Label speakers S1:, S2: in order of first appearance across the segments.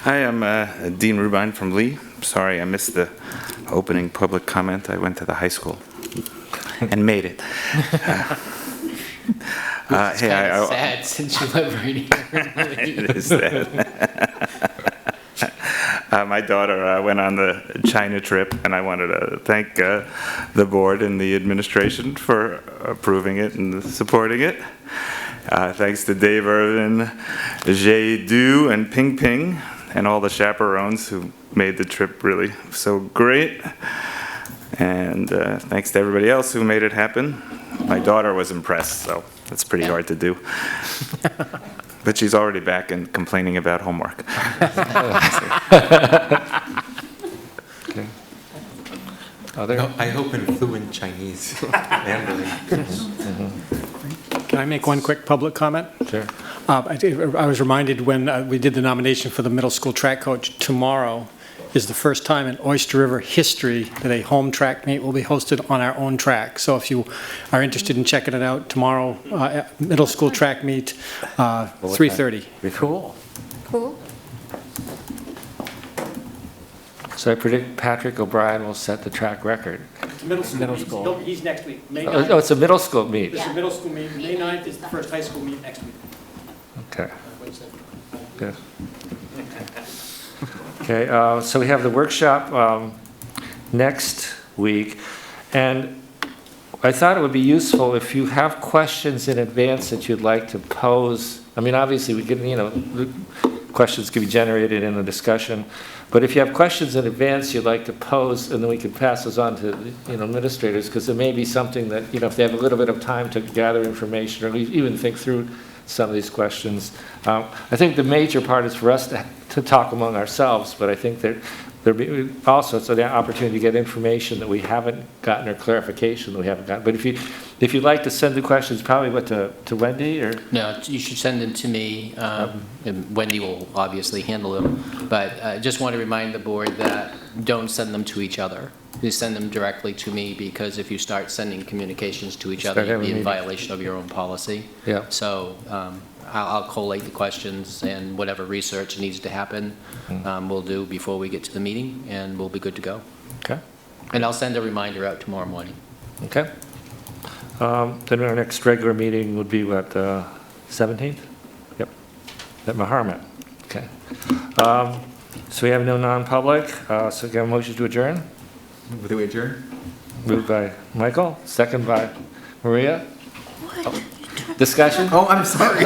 S1: Hi, I'm uh, Dean Rubin from Lee. Sorry, I missed the opening public comment. I went to the high school and made it. Uh, Hey,
S2: kind
S1: I-
S2: of
S1: I-
S2: sad since you live right here.
S1: it is that. uh, my daughter uh, went on the China trip, and I wanted to thank uh, the board and the administration for approving it and supporting it. Uh, thanks to Dave Irvin, Jay Du, and Ping Ping, and all the chaperones who made the trip really so great. And uh, thanks to everybody else who made it happen. My daughter was impressed, so that's pretty hard to do. But she's already back and complaining about homework.
S3: Okay. Are there,
S4: I hope in fluent Chinese, Mandarin.
S5: Can I make one quick public comment?
S3: sure.
S5: Uh, I did- I was reminded when uh, we did the nomination for the middle school track coach, tomorrow is the first time in Oyster River history that a home track meet will be hosted on our own track. So if you are interested in checking it out, tomorrow, uh, at middle school track meet, uh, 3:30.
S3: Cool.
S6: Cool.
S3: So I predict Patrick O'Brien will set the track record.
S5: Middle
S3: Middle meet. school.
S5: He's next week, May
S3: Oh, oh, it's a middle school meet.
S6: is the
S5: middle school meet, May 9th is the first high school meet next week.
S3: Okay. Good. Okay, uh, so we have the workshop um, next week, and I thought it would be useful if you have questions in advance that you'd like to pose. I mean, obviously, we can, you know, the questions can be generated in the discussion, but if you have questions in advance you'd like to pose, and then we can pass those on to, you know, administrators, because it may be something that, you know, if they have a little bit of time to gather information or e-, even think through some of these questions. Um, I think the major part is for us to, to talk among ourselves, but I think there, there be, also, it's an opportunity to get information that we haven't gotten or clarification that we haven't gotten. But if you, if you'd like to send the questions, probably what, to, to Wendy or?
S2: No, you should send them to me, um, and Wendy will obviously handle them, but I just want to remind the board that don't send them to each other. You send them directly to me, because if you start sending communications to each other,
S3: Start
S2: you'd
S3: having
S2: be in
S3: meetings.
S2: violation of your own policy.
S3: Yeah.
S2: So um, I'll I'll collate the questions and whatever research needs to happen, um, we'll do before we get to the meeting, and we'll be good to go.
S3: Okay.
S2: And I'll send a reminder out tomorrow morning.
S3: Okay. Um, Then our next regular meeting would be what, uh, 17th? Yep, at Maharmet. Okay. Um, So we have no non-public, uh, so can I have a motion to adjourn?
S4: With the wager?
S3: Moved by Michael, second by Maria. Discussion?
S4: Oh, I'm sorry.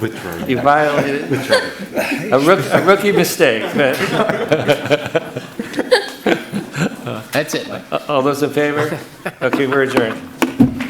S4: Withdraw.
S3: You violated a rook- a rookie mistake. but-
S2: That's it, Mike.
S3: All those in favor? Okay, we're adjourned.